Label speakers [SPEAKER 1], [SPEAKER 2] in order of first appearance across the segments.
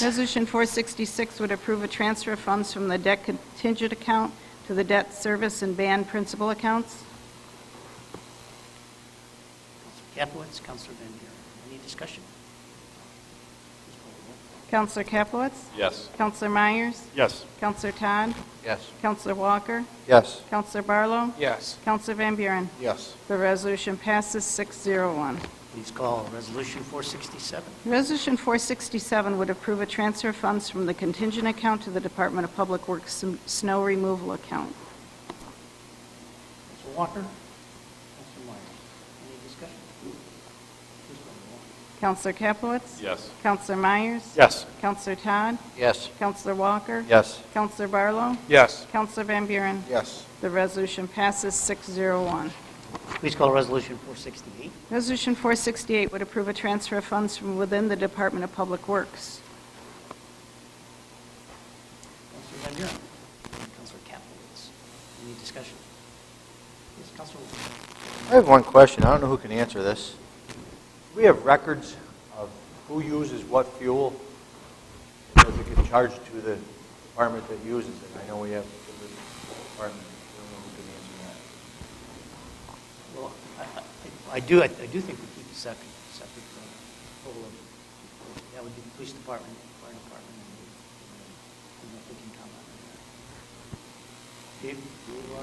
[SPEAKER 1] Resolution 466 would approve a transfer of funds from the debt contingent account to the debt service and band principal accounts.
[SPEAKER 2] Counselor Capelitz, Counselor Van Buren. Any discussion? Please call the roll.
[SPEAKER 1] Counselor Capelitz?
[SPEAKER 3] Yes.
[SPEAKER 1] Counselor Myers?
[SPEAKER 3] Yes.
[SPEAKER 1] Counselor Todd?
[SPEAKER 3] Yes.
[SPEAKER 1] Counselor Walker?
[SPEAKER 3] Yes.
[SPEAKER 1] Counselor Barlow?
[SPEAKER 3] Yes.
[SPEAKER 1] Counselor Van Buren?
[SPEAKER 3] Yes.
[SPEAKER 1] The resolution passes 601.
[SPEAKER 2] Please call Resolution 467.
[SPEAKER 1] Resolution 467 would approve a transfer of funds from the contingent account to the Department of Public Works sn- snow removal account.
[SPEAKER 2] Counselor Walker, Counselor Myers. Any discussion? Please call the roll.
[SPEAKER 1] Counselor Capelitz?
[SPEAKER 3] Yes.
[SPEAKER 1] Counselor Myers?
[SPEAKER 3] Yes.
[SPEAKER 1] Counselor Todd?
[SPEAKER 3] Yes.
[SPEAKER 1] Counselor Walker?
[SPEAKER 3] Yes.
[SPEAKER 1] Counselor Barlow?
[SPEAKER 3] Yes.
[SPEAKER 1] Counselor Van Buren?
[SPEAKER 3] Yes.
[SPEAKER 1] The resolution passes 601.
[SPEAKER 2] Please call Resolution 468.
[SPEAKER 1] Resolution 468 would approve a transfer of funds from within the Department of Public Works.
[SPEAKER 2] Counselor Van Buren. And Counselor Capelitz. Any discussion? Yes, Counselor Walker.
[SPEAKER 4] I have one question. I don't know who can answer this. Do we have records of who uses what fuel? Does it get charged to the department that uses it? I know we have different departments. I don't know who can answer
[SPEAKER 2] Well, I- I- I do, I I do think we keep a separate, separate uh, total of, that would be the police department, fire department, and the, and the- and we can comment on that. Dave, do you, uh,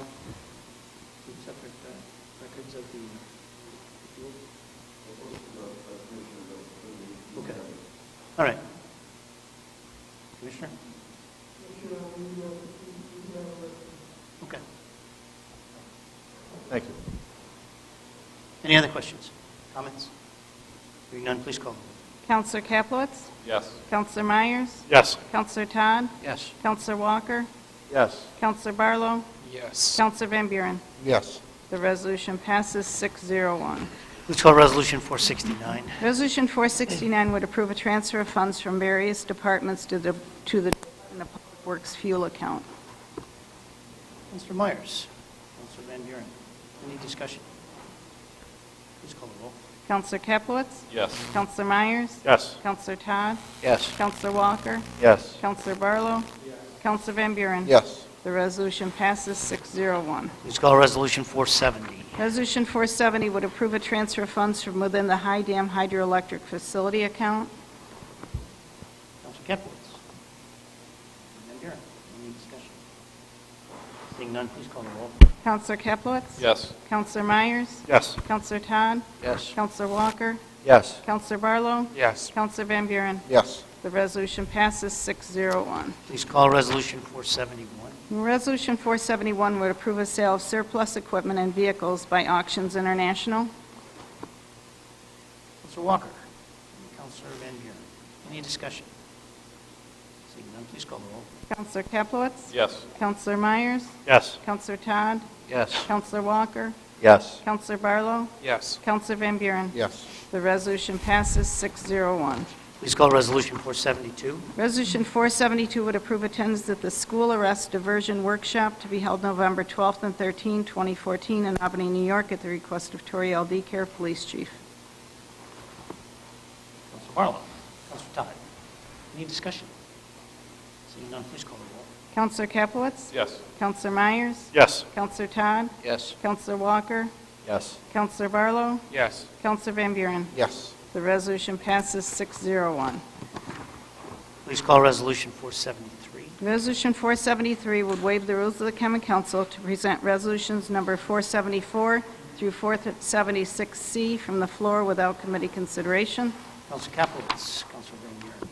[SPEAKER 2] keep separate uh, records of the fuel? Okay, all right. Commissioner? Okay,
[SPEAKER 4] that. Thank you.
[SPEAKER 2] any other questions, comments? Hearing none, please call the roll.
[SPEAKER 1] Counselor Capelitz?
[SPEAKER 3] Yes.
[SPEAKER 1] Counselor Myers?
[SPEAKER 3] Yes.
[SPEAKER 1] Counselor Todd?
[SPEAKER 3] Yes.
[SPEAKER 1] Counselor Walker?
[SPEAKER 4] Yes.
[SPEAKER 1] Counselor Barlow?
[SPEAKER 3] Yes.
[SPEAKER 1] Counselor Van Buren?
[SPEAKER 3] Yes.
[SPEAKER 1] The resolution passes 601.
[SPEAKER 2] Please call Resolution 469.
[SPEAKER 1] Resolution 469 would approve a transfer of funds from various departments to the, to the Department of Public Works fuel account.
[SPEAKER 2] Mr. Myers. Mr. Van Buren. Any discussion? Please call the roll.
[SPEAKER 1] Counselor Capelitz?
[SPEAKER 3] Yes.
[SPEAKER 1] Counselor Myers?
[SPEAKER 3] Yes.
[SPEAKER 1] Counselor Todd?
[SPEAKER 3] Yes.
[SPEAKER 1] Counselor Walker?
[SPEAKER 4] Yes.
[SPEAKER 1] Counselor Barlow? Counselor Van Buren?
[SPEAKER 3] Yes.
[SPEAKER 1] The resolution passes 601.
[SPEAKER 2] Please call Resolution 470.
[SPEAKER 1] Resolution 470 would approve a transfer of funds from within the High Dam Hydroelectric Facility account.
[SPEAKER 2] Counselor Capelitz. Van Buren. Any discussion? Seeing none, please call the roll.
[SPEAKER 1] Counselor Capelitz?
[SPEAKER 3] Yes.
[SPEAKER 1] Counselor Myers?
[SPEAKER 3] Yes.
[SPEAKER 1] Counselor Todd?
[SPEAKER 3] Yes.
[SPEAKER 1] Counselor Walker?
[SPEAKER 4] Yes.
[SPEAKER 1] Counselor Barlow?
[SPEAKER 3] Yes.
[SPEAKER 1] Counselor Van Buren?
[SPEAKER 3] Yes.
[SPEAKER 1] The resolution passes 601.
[SPEAKER 2] Please call Resolution 471.
[SPEAKER 1] Resolution 471 would approve a sale of surplus equipment and vehicles by Auctions International.
[SPEAKER 2] Counselor Walker. Counselor Van Buren. Any discussion? Seeing none, please call the roll.
[SPEAKER 1] Counselor Capelitz?
[SPEAKER 3] Yes.
[SPEAKER 1] Counselor Myers?
[SPEAKER 3] Yes.
[SPEAKER 1] Counselor Todd?
[SPEAKER 3] Yes.
[SPEAKER 1] Counselor Walker?
[SPEAKER 4] Yes.
[SPEAKER 1] Counselor Barlow?
[SPEAKER 3] Yes.
[SPEAKER 1] Counselor Van Buren?
[SPEAKER 3] Yes.
[SPEAKER 1] The resolution passes 601.
[SPEAKER 2] Please call Resolution 472.
[SPEAKER 1] Resolution 472 would approve attendance at the School Arrest Diversion Workshop to be held November 12th and 13th, 2014, in Albany, New York, at the request of Tori L. Care Police Chief.
[SPEAKER 2] Counselor Barlow. Counselor Todd. Any discussion? Seeing none, please call the roll.
[SPEAKER 1] Counselor Capelitz?
[SPEAKER 3] Yes.
[SPEAKER 1] Counselor Myers?
[SPEAKER 3] Yes.
[SPEAKER 1] Counselor Todd?
[SPEAKER 3] Yes.
[SPEAKER 1] Counselor Walker?
[SPEAKER 4] Yes.
[SPEAKER 1] Counselor Barlow?
[SPEAKER 3] Yes.
[SPEAKER 1] Counselor Van Buren?
[SPEAKER 3] Yes.
[SPEAKER 1] The resolution passes 601.
[SPEAKER 2] Please call Resolution 473.
[SPEAKER 1] Resolution 473 would waive the rules of the common council to present resolutions number 474 through 476C from the floor without committee consideration.
[SPEAKER 2] Counselor Capelitz, Counselor Van Buren.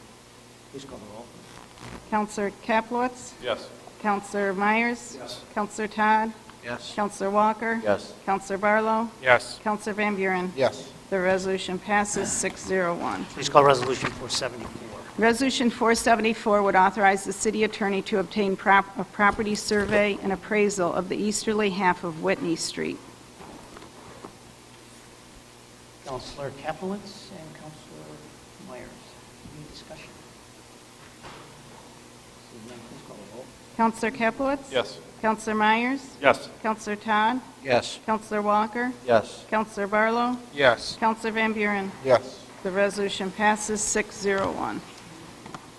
[SPEAKER 2] Please call the roll.
[SPEAKER 1] Counselor Kaplowitz,
[SPEAKER 3] Yes.
[SPEAKER 1] Counselor Myers.
[SPEAKER 3] Yes.
[SPEAKER 1] Counselor Todd.
[SPEAKER 3] Yes.
[SPEAKER 1] Counselor Walker.
[SPEAKER 4] Yes.
[SPEAKER 1] Counselor Barlow.
[SPEAKER 3] Yes.
[SPEAKER 1] Counselor Van Buren.
[SPEAKER 3] Yes.
[SPEAKER 1] The resolution passes 601.
[SPEAKER 2] Please call Resolution 474.
[SPEAKER 1] Resolution 474 would authorize the city attorney to obtain prop- a property survey and appraisal of the easterly half of Whitney Street.
[SPEAKER 2] Counselor Capelitz and Counselor Myers. Any discussion? Seeing none, please call the roll.
[SPEAKER 1] Counselor Kaplowitz.
[SPEAKER 3] Yes.
[SPEAKER 1] Counselor Myers.
[SPEAKER 3] Yes.
[SPEAKER 1] Counselor Todd.
[SPEAKER 3] Yes.
[SPEAKER 1] Counselor Walker.
[SPEAKER 4] Yes.
[SPEAKER 1] Counselor Barlow.
[SPEAKER 3] Yes.
[SPEAKER 1] Counselor Van Buren.
[SPEAKER 3] Yes.
[SPEAKER 1] The resolution passes 601.